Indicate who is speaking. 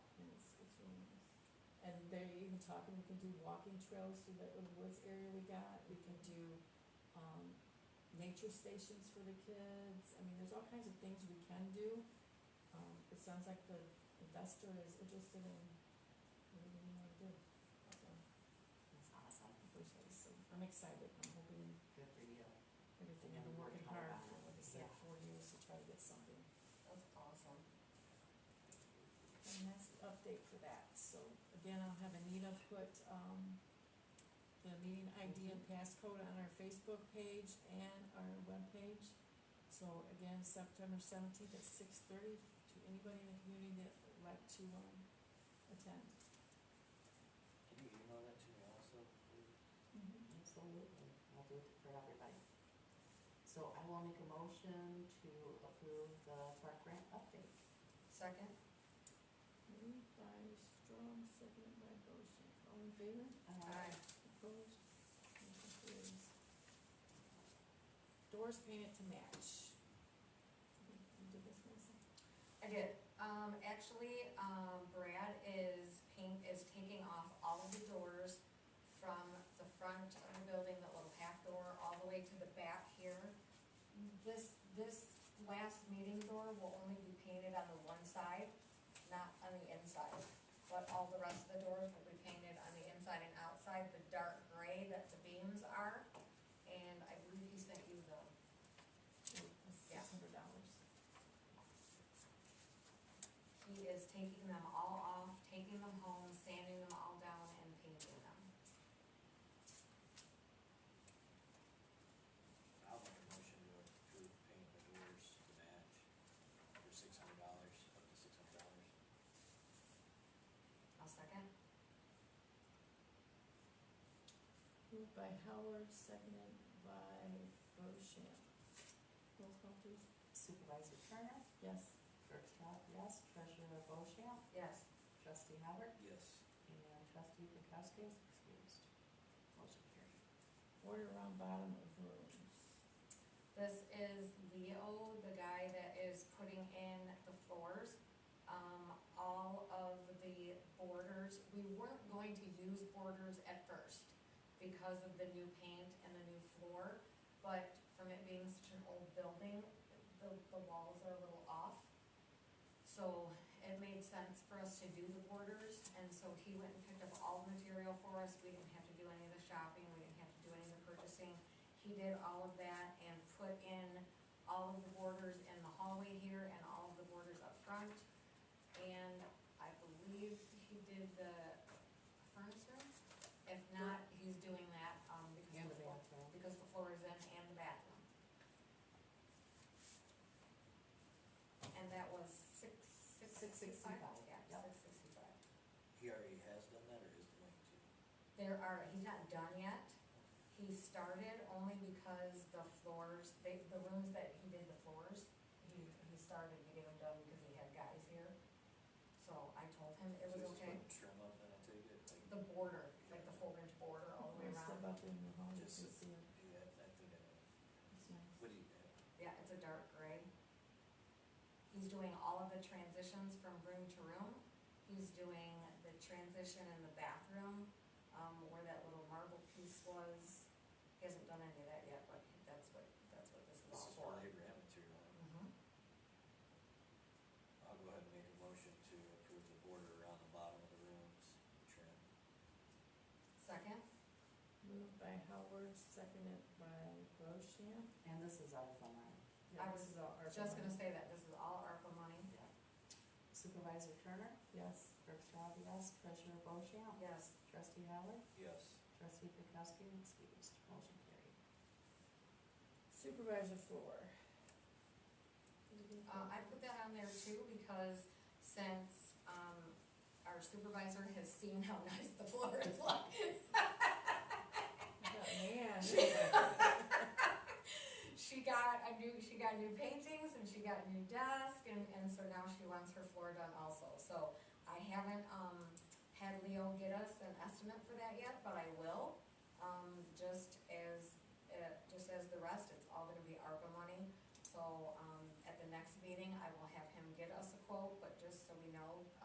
Speaker 1: they're even talking, we can do walking trails through that little woods area we got, we can do, um, nature stations for the kids, I mean, there's all kinds of things we can do. Um, it sounds like the investor is interested in, what do you wanna do, so. It's awesome, the first place, so I'm excited, I'm hoping
Speaker 2: Good for you.
Speaker 1: everything, I've been working hard for, like I said,
Speaker 2: Yeah.
Speaker 1: four years to try to get something.
Speaker 2: That's awesome.
Speaker 1: And that's the update for that, so again, I'll have Anita put, um, the meeting ID and passcode on our Facebook page and our webpage. So again, September seventeenth at six thirty to anybody in the community that would like to, um, attend.
Speaker 2: Can you email that to me also? Absolutely, I'll do it for everybody. So I will make a motion to approve the park grant update. Second?
Speaker 1: Moved by Strong, seconded by Bochamp, all in favor?
Speaker 2: Aye.
Speaker 1: Opposed? Motion carries. Doors painted to match. You did this one, so-
Speaker 3: I did, um, actually, um, Brad is paint, is taking off all of the doors from the front of the building, that little half door, all the way to the back here. This, this last meeting door will only be painted on the one side, not on the inside. But all the rest of the doors will be painted on the inside and outside, the dark gray that the beams are, and I believe he sent you the Yeah.
Speaker 1: Six hundred dollars.
Speaker 3: He is taking them all off, taking them home, sanding them all down and painting them.
Speaker 4: I'll make a motion to approve painting the doors to match for six hundred dollars, up to six hundred dollars.
Speaker 3: I'll second.
Speaker 1: Moved by Howard, seconded by Bochamp. Roll call please.
Speaker 2: Uh, Supervisor Turner,
Speaker 1: Yes.
Speaker 2: Kirk Scott, yes, Treasurer Bochamp,
Speaker 3: Yes.
Speaker 2: Trustee Howard,
Speaker 4: Yes.
Speaker 2: and Trustee Pankowski is excused. Motion carried.
Speaker 1: Order around bottom of rooms.
Speaker 3: This is Leo, the guy that is putting in the floors. Um, all of the borders, we weren't going to use borders at first because of the new paint and the new floor. But from it being such an old building, the, the walls are a little off. So it made sense for us to do the borders, and so he went and picked up all the material for us, we didn't have to do any of the shopping, we didn't have to do any of the purchasing. He did all of that and put in all of the borders in the hallway here and all of the borders up front. And I believe he did the furniture, if not, he's doing that, um, because
Speaker 2: And
Speaker 3: the
Speaker 2: the
Speaker 3: floor,
Speaker 2: bathroom.
Speaker 3: because the floor is in and the bathroom. And that was six, six
Speaker 2: Six
Speaker 3: sixty-five,
Speaker 2: sixty-five,
Speaker 3: yeah,
Speaker 2: yep.
Speaker 3: six sixty-five.
Speaker 4: He already has done that or is going to?
Speaker 3: There are, he's not done yet, he started only because the floors, they, the rooms that he did the floors, he, he started getting them done because he had guys here. So I told him it
Speaker 4: So
Speaker 3: was
Speaker 4: he's just
Speaker 3: okay,
Speaker 4: putting Trim up and I take it, like,
Speaker 3: the border, like the four inch border all the way
Speaker 1: Wanna Step up
Speaker 3: around,
Speaker 1: in the hall, you can
Speaker 4: Just-
Speaker 1: see it.
Speaker 4: yeah, I think I know.
Speaker 1: It's nice.
Speaker 4: What do you, uh,
Speaker 3: yeah, it's a dark gray. He's doing all of the transitions from room to room, he's doing the transition in the bathroom, um, where that little marble piece was. He hasn't done any of that yet, but that's what, that's what this is
Speaker 4: this
Speaker 3: all
Speaker 4: is
Speaker 3: for.
Speaker 4: for labor and material.
Speaker 3: Mhm.
Speaker 4: I'll go ahead and make a motion to approve the border around the bottom of the rooms, trim.
Speaker 3: Second?
Speaker 1: Moved by Howard, seconded by Bochamp.
Speaker 2: And this is all from mine.
Speaker 1: Yeah,
Speaker 3: I
Speaker 1: this
Speaker 3: was
Speaker 1: is
Speaker 3: uh,
Speaker 1: all ARPA
Speaker 3: Just gonna
Speaker 1: money.
Speaker 3: say that this is all ARPA money.
Speaker 2: Yeah. Supervisor Turner,
Speaker 1: Yes.
Speaker 2: Kirk Scott, yes, Treasurer Bochamp,
Speaker 3: Yes.
Speaker 2: Trustee Howard,
Speaker 4: Yes.
Speaker 2: Trustee Pankowski is excused. Motion carried.
Speaker 1: Supervisor floor.
Speaker 3: Uh, I put that on there too because since, um, our supervisor has seen how nice the floor is like,
Speaker 1: Man.
Speaker 3: she got a new, she got new paintings and she got a new desk and, and so now she wants her floor done also. So I haven't, um, had Leo get us an estimate for that yet, but I will. Um, just as, uh, just as the rest, it's all gonna be ARPA money. So, um, at the next meeting, I will have him get us a quote, but